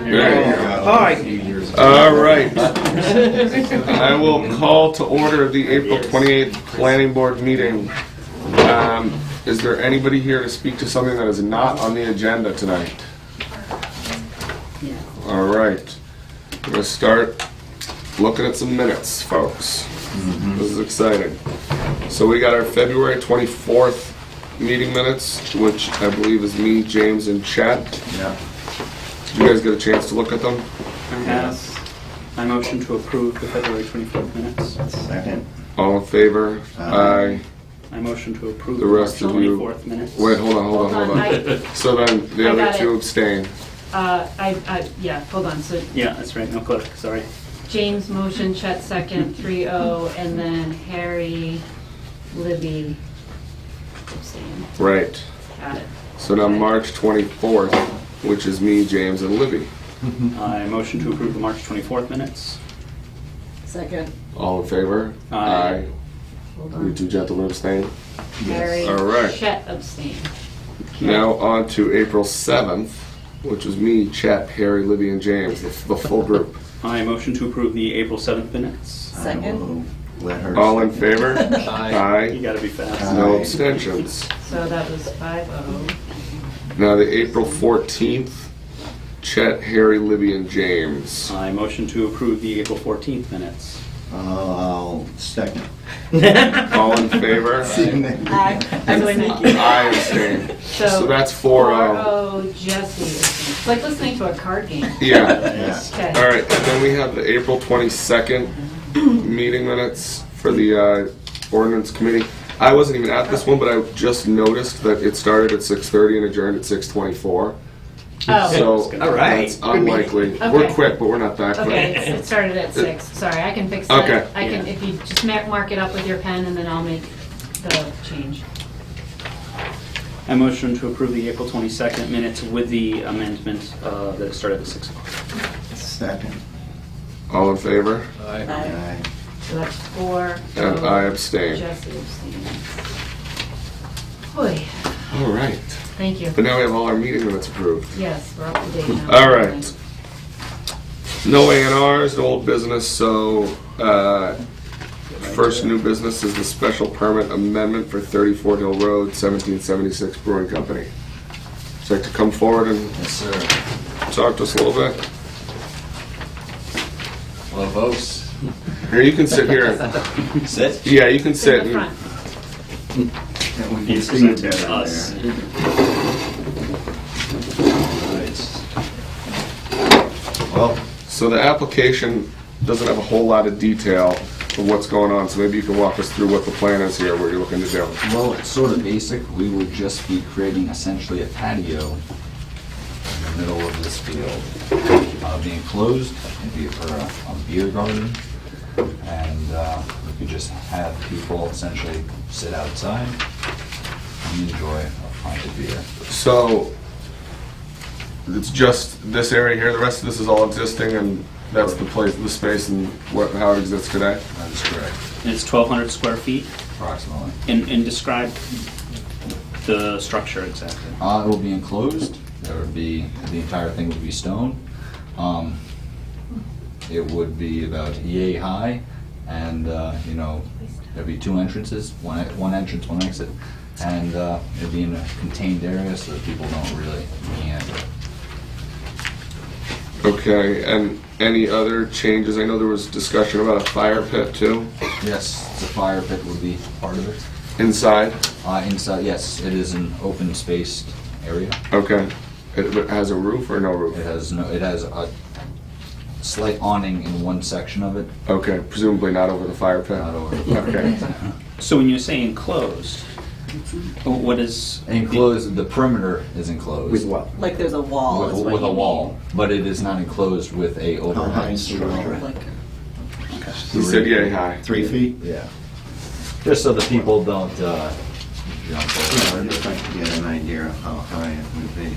There you go. All right. All right. I will call to order the April 28th Planning Board meeting. Um, Is there anybody here to speak to something that is not on the agenda tonight? All right. We're gonna start looking at some minutes, folks. This is exciting. So we got our February 24th meeting minutes, which I believe is me, James, and Chad. Yeah. Did you guys get a chance to look at them? Yes. I motion to approve the February 24th minutes. Second. All in favor? Aye. Aye. I motion to approve The the rest March of you- 24th minutes. Wait, hold on, hold on, hold on. I, So then the I other got two it. abstain. uh, I, I, yeah, hold on, so Yeah, that's right, no clerk, sorry. James motion, Chet second, three oh, and then Harry, Libby, abstain, Right. got it. So now March 24th, which is me, James, and Libby. I motion to approve the March 24th minutes. Second, All in favor? Aye. hold You on. two gentlemen abstain. Harry, All right. Chet abstain. Now on to April 7th, which is me, Chet, Harry, Libby, and James, the the full group. I motion to approve the April 7th minutes. I Second. will Let her. All in second. favor? You Aye. gotta be fast. No Aye. abstentions. So that was five oh. Now the April 14th, Chet, Harry, Libby, and James. I motion to approve the April 14th minutes. Uh, I'll second. All in favor? I really need you. I abstain. So that's four Four oh. oh, Jesse abstained. It's like listening to a card game. Yeah. Yes. Okay. All right, and then we have the April twenty-second meeting minutes for the uh, ordinance committee. I wasn't even at this one, but I just noticed that it started at six thirty and adjourned at six twenty-four. Oh, So All right. that's unlikely. We're Okay. quick, but we're not that okay, quick. it's- it started at six, sorry, I can fix that. Okay. I can, Yeah. if you just ma- mark it up with your pen and then I'll make the change. I motion to approve the April 22nd minutes with the amendment uh, that it started at 6 o'clock. Second. All in favor? Aye. Aye. So that's four. And oh, I abstain. Jesse abstains. Hoy, All right. thank you. But now we have all our meeting minutes approved. Yes, we're up to date now. All right. No A and Rs, no old business, so, uh, first new business is the special permit amendment for thirty-four Hill Road, seventeen seventy-six Brewing Company. Would you like to come forward and Yes, sir. talk to us a little bit? Hello, folks. Here, you can sit here. Sit. Yeah, you can It's in sit. the and- front. That would be It's seen presented to down us. there. Well, So the application doesn't have a whole lot of detail of what's going on, so maybe you can walk us through what the plan is here, what you're looking to do. Well, it's sort of basic. We will just be creating essentially a patio in the middle of this field. Uh, Be enclosed, it'd be for a a beer garden. And uh, we could just have people essentially sit outside and enjoy a pint of beer. So, it's just this area here, the rest of this is all existing, and that's the place, the space and what, how it exists today? That is correct, And it's 1,200 square feet. approximately. And, and describe the structure exactly. Uh, it will be enclosed. There would be, the entire thing would be stone. Um, it would be about yay high and, uh, you know, there'd be two entrances, one, e- one entrance, one exit. And, uh, it'd be in a contained area so that people don't really meander. Okay, and any other changes? I know there was discussion about a fire pit too, Yes, the fire pit would be part of it. inside? Uh, inside, yes, it is an open spaced area. Okay. It it has a roof or no It roof? has no, it has a slight awning in one section of it, Okay, presumably not over the fire pit? not over. Okay. So when you say enclosed, what is? Enclosed, the perimeter is enclosed. With what? Like there's a wall With, is what you a mean. wall, but it is not enclosed with a how high overhang. is the wall? Like, He said yay high. Three feet? Yeah. Just so the people don't, uh, jump Yeah, over. I'd just like to get an idea of how high it would be.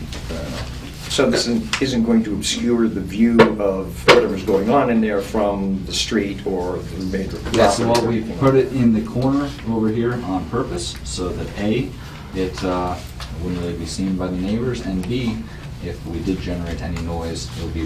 So this isn't- isn't going to obscure the view of whatever's going on in there from the street or the major property? Yeah, so what we put it in the corner over here on purpose, so that A, it, uh, wouldn't really be seen by the neighbors, and B, if we did generate any noise, it would be